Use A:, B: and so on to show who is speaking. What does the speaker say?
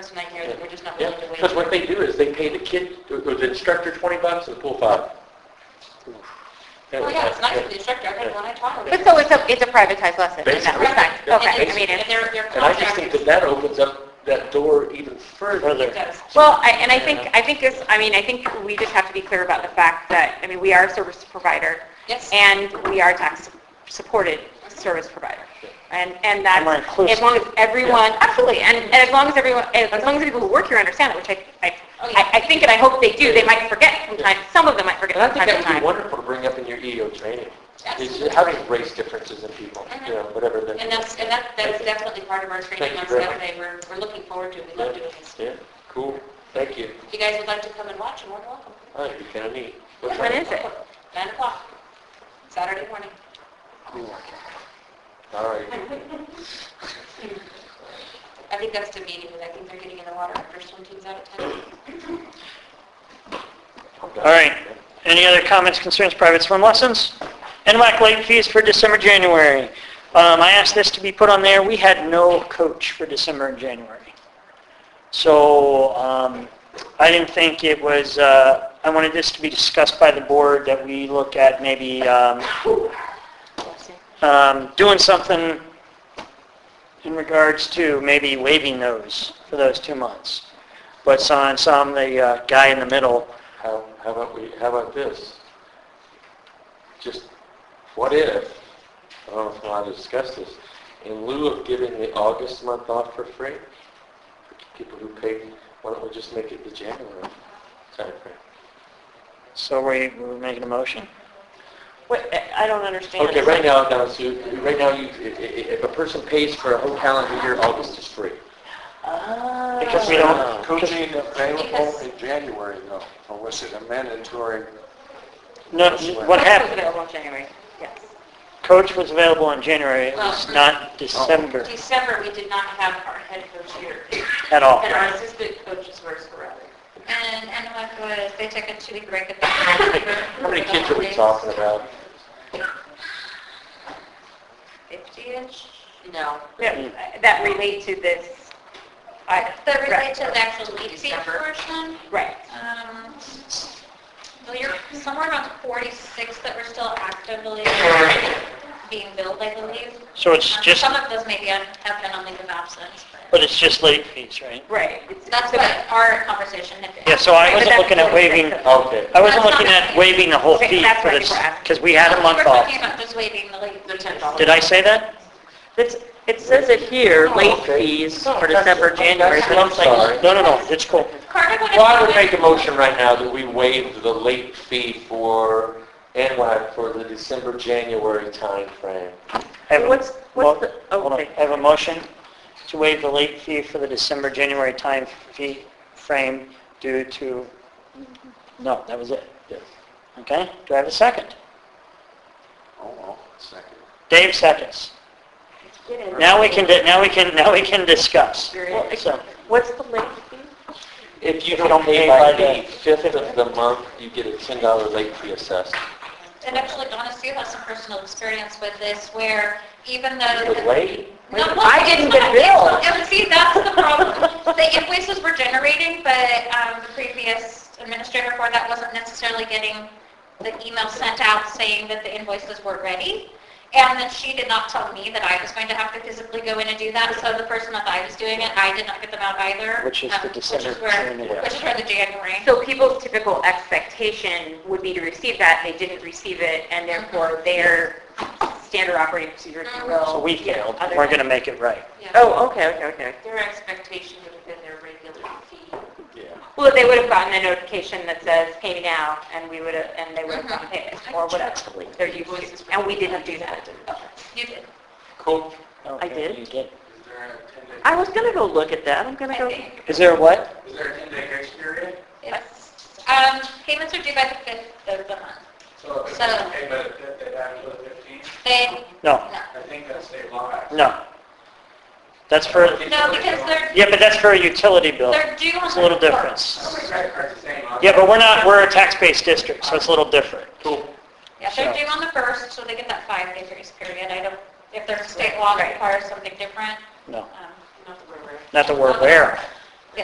A: person I hear that we're just not willing to wait.
B: Because what they do is they pay the kid, or or the instructor 20 bucks and the pool 5.
A: Well, yeah, it's nice for the instructor, I heard when I taught
C: But so it's a, it's a privatized lesson in that
B: Basically.
C: respect?
B: Yeah.
C: Okay, I mean,
A: And
C: it's,
A: they're, they're
B: And I just think that
A: contracted.
B: that opens up that door even further.
A: does.
C: well, I- and I think, I think this, I mean, I think we just have to be clear about the fact that, I mean, we are a service provider.
A: Yes.
C: And we are tax-supported service provider. And, and that's,
D: we're inclusive.
C: as long as everyone, absolutely, and, and as long as everyone, as as long as the people who work here understand it, which I, I,
A: Oh, yeah.
C: I- I think and I hope they do, they might forget sometimes, some of them might forget
B: And I
C: from
B: think
C: time
B: that
C: to
B: would
C: time.
B: be wonderful to bring up in your EO training. Is
A: Absolutely.
B: how to raise differences in people, you know, whatever the...
A: And that's, and that, that's definitely part of our training on
B: Thank you very much.
A: Saturday, we're, we're looking forward to it, we love doing this.
B: Yeah, cool, thank you.
A: If you guys would like to come and watch, you're more than welcome.
B: Oh, you're kind of neat.
C: What
B: time?
C: is it?
A: Nine o'clock, Saturday morning.
B: All right.
A: I think that's the meeting, but I think they're getting in the water after swim team's out at ten.
D: All right. Any other comments, concerns, private swim lessons? NWAC late fees for December, January. Um, I asked this to be put on there. We had no coach for December and January. So um, I didn't think it was, uh, I wanted this to be discussed by the board that we look at maybe um, um, doing something in regards to maybe waiving those for those two months. But so I saw the uh, guy in the middle
B: How, how about we, how about this? Just, what if, I don't know if I want to discuss this, in lieu of giving the August month off for free, for people who pay, why don't we just make it the January timeframe?
D: So we, we're making a motion?
C: Wait, I don't understand.
B: Okay, right now, now, Sue, right now, you, i- i- if a person pays for a whole calendar year, August is free.
E: Uh,
D: Because we
B: uh,
D: don't,
F: Coaching available
A: Because-
F: in January though, or was it a mandatory?
D: no, what
C: It's
D: happened?
C: available in January, yes.
D: Coach was available in January, it was
E: Uh-huh.
D: not December
A: December, we did not have our head coach here,
D: at all.
A: and our assistant coaches were sporadic.
G: And NWAC was, they took a two-week break at the end of December.
B: How many kids are we talking about?
G: Fifty-ish.
A: No.
C: That Uh, that relate to this, I,
G: That
C: right,
G: relates to the actual lead fee
A: December.
G: portion.
C: right.
G: Um, Well, you're somewhere around 46 that were still actively being billed, I believe.
D: So it's
G: Um,
D: just,
G: Some of those maybe on- have been on leave of absence, but
D: but it's just late fees, right?
C: Right.
G: that's what our conversation had been.
D: Yeah, so I
C: But
D: wasn't
C: that's
D: looking at
C: what it is.
D: waiving,
B: Okay.
D: I wasn't looking at waiving the whole fee
C: That's
D: for
C: what
D: this,
C: people ask.
D: because we had a month
G: We're
D: off.
G: talking about just waiving the late
A: The
G: fees.
A: $10.
D: Did I say that?
E: It's, it says it here, late
B: Oh, Okay.
E: fees
B: No,
E: for
B: that's-
E: December, January, but
B: I'm
E: it's
B: sorry.
E: like,
D: No, no, no, it's cool.
G: Carter, what
B: Well, I would
G: if-
B: make a motion right now that we waive the late fee for NWAC for the December, January timeframe.
D: I have a-
E: What's- what's the- oh,
D: well, hold on.
E: okay.
D: I have a motion to waive the late fee for the December, January time fee frame due to, no, that was it.
B: Yes.
D: Okay, do I have a second?
F: Oh, well, second.
D: Dave seconds.
C: Get in.
D: Now we can, di- now we can, now we can discuss.
C: Well, ex-
D: So,
E: what's the late fee?
B: If you don't pay by the 5th of the month, you get a $10 late fee assessed.
G: And actually, Donna, you have some personal experience with this where even though.
B: With
G: the-
B: late?
G: No, well,
E: I didn't get billed.
G: And see, that's the problem. The invoices were generating, but um, the previous administrator for that wasn't necessarily getting the email sent out saying that the invoices were ready. And then she did not tell me that I was going to have to physically go in and do that. So the person that I was doing it, I did not get them out either.
D: Which is
G: um,
D: the December,
G: Which is where,
D: January.
G: which is where the January.
C: So people's typical expectation would be to receive that, they didn't receive it, and
G: Mm-hmm.
C: therefore their standard operating procedure, if you will.
D: so
C: you
D: we
C: know,
D: failed.
C: other
D: We're
C: than-
D: going to make it right.
C: uh,
A: Yeah.
E: Oh, okay, okay, okay.
A: Their expectation would have been their regular fee.
B: Yeah.
C: Well, they would have gotten a notification that says, pay me now, and we would have, and they would have gotten paid,
E: Uh-huh.
C: or whatever. They're used to, and we didn't do that.
G: You did.
B: Cool.
E: I did.
D: You did.
E: I was gonna go look at that, I'm gonna
G: I
E: go,
G: think.
D: Is there a what?
F: Is there a 10-day grace period?
G: It's, um, payments are due by the 5th of the month.
F: So
G: if it's
F: by
G: So-
F: the 5th, they have to the 15th?
G: They,
D: No,
G: no.
F: I think that's state law.
D: no. That's for,
G: No, because they're,
D: yeah, but that's for a utility bill.
G: they're due on the
D: It's a little
G: 4th.
D: different.
F: credit cards the same.
D: Yeah, but we're not, we're a tax-based district, so it's a little different.
B: Cool.
G: Yeah, they're due on the 1st, so they get that five-day grace period. I don't, if there's a state law that requires something different,
D: No,
G: um,
A: Not that we're aware of.
D: not that we're aware of.